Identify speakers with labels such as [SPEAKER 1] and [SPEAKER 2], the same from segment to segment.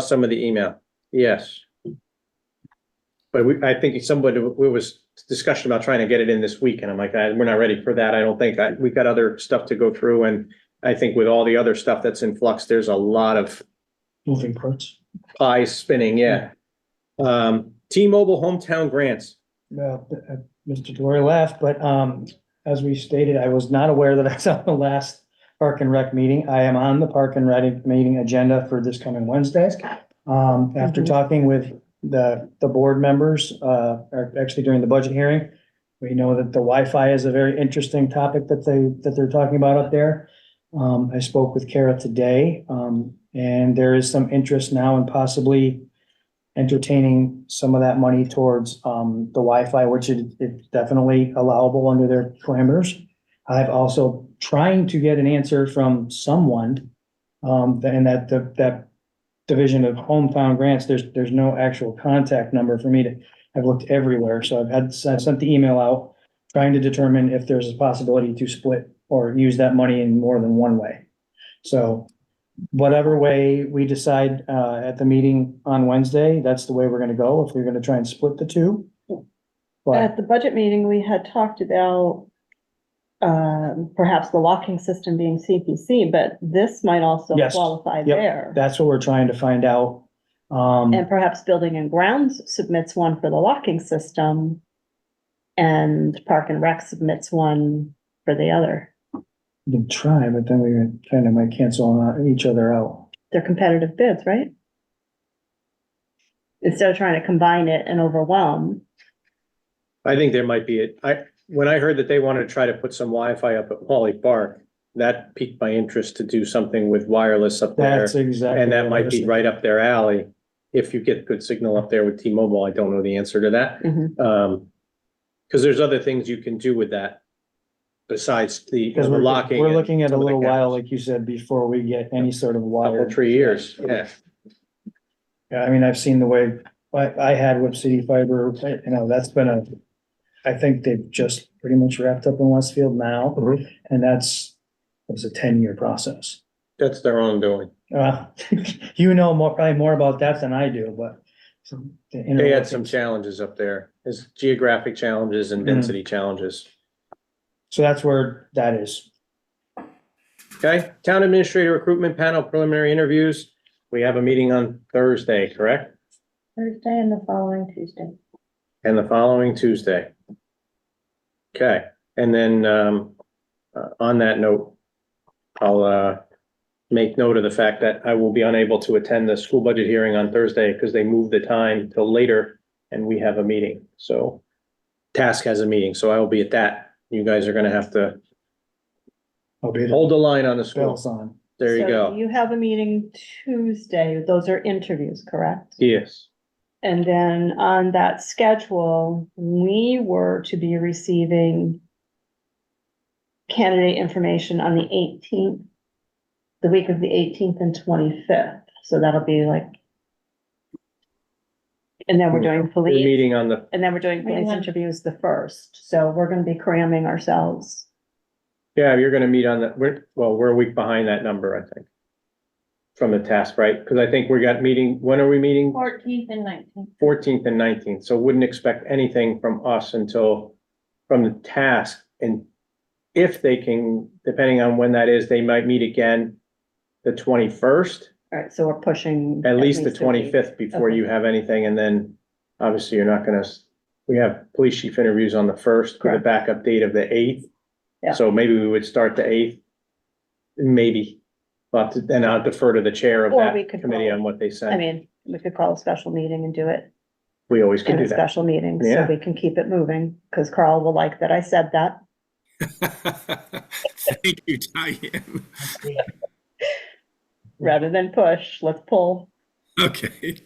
[SPEAKER 1] some of the email, yes. But we, I think somebody, we was discussion about trying to get it in this week, and I'm like, I, we're not ready for that, I don't think, I, we've got other stuff to go through, and I think with all the other stuff that's in flux, there's a lot of
[SPEAKER 2] moving parts.
[SPEAKER 1] pies spinning, yeah. Um, T-Mobile hometown grants,
[SPEAKER 2] Uh, uh, Mr. Delory laughed, but, um, as we stated, I was not aware that I was on the last Park and Rec meeting. I am on the Park and Rec meeting agenda for this coming Wednesday. Um, after
[SPEAKER 3] Mhm.
[SPEAKER 2] talking with the, the board members, uh, or actually during the budget hearing, we know that the Wi-Fi is a very interesting topic that they, that they're talking about up there. Um, I spoke with Kara today, um, and there is some interest now in possibly entertaining some of that money towards, um, the Wi-Fi, which is, is definitely allowable under their parameters. I've also trying to get an answer from someone, um, and that, that, that division of hometown grants, there's, there's no actual contact number for me to, I've looked everywhere, so I've had, I've sent the email out trying to determine if there's a possibility to split or use that money in more than one way. So whatever way we decide, uh, at the meeting on Wednesday, that's the way we're gonna go, if we're gonna try and split the two. But,
[SPEAKER 3] At the budget meeting, we had talked about um, perhaps the locking system being CPC, but this might also
[SPEAKER 2] Yes.
[SPEAKER 3] qualify
[SPEAKER 2] Yep.
[SPEAKER 3] there.
[SPEAKER 2] that's what we're trying to find out. Um,
[SPEAKER 3] And perhaps Building and Grounds submits one for the locking system and Park and Rec submits one for the other.
[SPEAKER 2] we can try, but then we kind of might cancel on uh, each other out.
[SPEAKER 3] They're competitive bids, right? Instead of trying to combine it and overwhelm,
[SPEAKER 1] I think there might be, it. I, when I heard that they wanted to try to put some Wi-Fi up at Wally Park, that piqued my interest to do something with wireless up there.
[SPEAKER 2] That's exactly.
[SPEAKER 1] And that
[SPEAKER 2] what I
[SPEAKER 1] might
[SPEAKER 2] was
[SPEAKER 1] be
[SPEAKER 2] thinking.
[SPEAKER 1] right up their alley. If you get good signal up there with T-Mobile, I don't know the answer to that.
[SPEAKER 3] Mhm.
[SPEAKER 2] Mm-hmm.
[SPEAKER 1] Um, because there's other things you can do with that besides the you know,
[SPEAKER 2] Because
[SPEAKER 1] the
[SPEAKER 2] we're,
[SPEAKER 1] locking.
[SPEAKER 2] we're
[SPEAKER 1] and
[SPEAKER 2] looking at a
[SPEAKER 1] some of the
[SPEAKER 2] little while,
[SPEAKER 1] cameras.
[SPEAKER 2] like you said, before we get any sort of
[SPEAKER 1] Couple,
[SPEAKER 2] water.
[SPEAKER 1] three years, yeah.
[SPEAKER 2] Yeah, I mean, I've seen the way, I, I had with City Fiber, you know, that's been a, I think they've just pretty much wrapped up in Westfield now.
[SPEAKER 1] Mhm.
[SPEAKER 2] And that's, it was a ten-year process.
[SPEAKER 1] That's their own doing.
[SPEAKER 2] Uh, you know more, probably more about that than I do, but. some- the
[SPEAKER 1] They had
[SPEAKER 2] interlocking-
[SPEAKER 1] some challenges up there. There's geographic challenges and
[SPEAKER 2] Mhm.
[SPEAKER 1] density challenges.
[SPEAKER 2] So that's where that is.
[SPEAKER 1] Okay, town administrator recruitment panel preliminary interviews. We have a meeting on Thursday, correct?
[SPEAKER 3] Thursday and the following Tuesday.
[SPEAKER 1] And the following Tuesday. Okay, and then, um, uh, on that note, I'll, uh, make note of the fact that I will be unable to attend the school budget hearing on Thursday because they moved the time till later and we have a meeting, so task has a meeting, so I will be at that. You guys are gonna have to
[SPEAKER 2] I'll be the
[SPEAKER 1] hold the line on the school.
[SPEAKER 2] bells on.
[SPEAKER 1] There you
[SPEAKER 3] So
[SPEAKER 1] go.
[SPEAKER 3] You have a meeting Tuesday. Those are interviews, correct?
[SPEAKER 1] Yes.
[SPEAKER 3] And then on that schedule, we were to be receiving candidate information on the eighteenth, the week of the eighteenth and twenty-fifth. So that'll be like. And then we're doing
[SPEAKER 1] We're
[SPEAKER 3] police,
[SPEAKER 1] meeting on the
[SPEAKER 3] and then we're doing police
[SPEAKER 4] Yeah.
[SPEAKER 3] interviews the first. So we're gonna be cramming ourselves.
[SPEAKER 1] Yeah, you're gonna meet on that, we're, well, we're a week behind that number, I think. From the task, right? Because I think we got meeting, when are we meeting?
[SPEAKER 4] Fourteenth and nineteenth.
[SPEAKER 1] Fourteenth and nineteenth, so wouldn't expect anything from us until, from the task. And if they can, depending on when that is, they might meet again the twenty-first,
[SPEAKER 3] All right, so we're pushing.
[SPEAKER 1] at least the
[SPEAKER 3] a week.
[SPEAKER 1] twenty-fifth before
[SPEAKER 3] Okay.
[SPEAKER 1] you have anything, and then obviously you're not gonna, s- we have police chief interviews on the first, with a
[SPEAKER 3] Correct.
[SPEAKER 1] backup date of the eighth.
[SPEAKER 3] Yeah.
[SPEAKER 1] So maybe we would start the eighth, maybe, but then I'll defer to the chair of
[SPEAKER 3] Or
[SPEAKER 1] that
[SPEAKER 3] we could
[SPEAKER 1] committee
[SPEAKER 3] call-
[SPEAKER 1] on what they said.
[SPEAKER 3] I mean, we could call a special meeting and do it
[SPEAKER 1] We always could
[SPEAKER 3] in
[SPEAKER 1] do
[SPEAKER 3] a
[SPEAKER 1] that.
[SPEAKER 3] special meeting, so
[SPEAKER 1] Yeah.
[SPEAKER 3] we can keep it moving, because Carl will like that I said that.
[SPEAKER 5] Thank you, Diane.
[SPEAKER 3] Rather than push, let's pull.
[SPEAKER 5] Okay.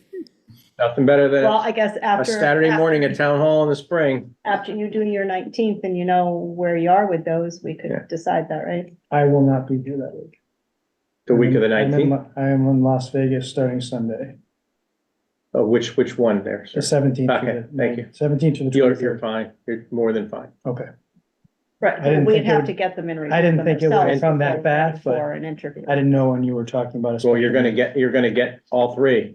[SPEAKER 1] Nothing better than
[SPEAKER 3] Well,
[SPEAKER 1] a
[SPEAKER 3] I guess after.
[SPEAKER 1] Saturday
[SPEAKER 3] after-
[SPEAKER 1] morning at town hall in the spring.
[SPEAKER 3] After you do your nineteenth and you know where you are with those, we
[SPEAKER 1] Yeah.
[SPEAKER 3] could decide that, right?
[SPEAKER 2] I will not be here that week.
[SPEAKER 1] The week of the
[SPEAKER 2] I'm in-
[SPEAKER 1] nineteenth,
[SPEAKER 2] I am in Las Vegas starting Sunday,
[SPEAKER 1] oh, which, which one there, sir?
[SPEAKER 2] the seventeenth.
[SPEAKER 1] Okay, thank you.
[SPEAKER 2] Seventeenth to the
[SPEAKER 1] You're, you're
[SPEAKER 2] 23rd.
[SPEAKER 1] fine, you're more than fine.
[SPEAKER 2] okay. I
[SPEAKER 3] Right,
[SPEAKER 2] didn't
[SPEAKER 3] we'd
[SPEAKER 2] think it
[SPEAKER 3] have
[SPEAKER 2] would-
[SPEAKER 3] to get them in.
[SPEAKER 2] I didn't think it would
[SPEAKER 3] themselves
[SPEAKER 2] come that
[SPEAKER 3] before-
[SPEAKER 2] bad, but
[SPEAKER 3] before an interview.
[SPEAKER 2] I didn't know when you were talking about. a
[SPEAKER 1] Well, you're
[SPEAKER 2] special
[SPEAKER 1] gonna get, you're gonna get all three.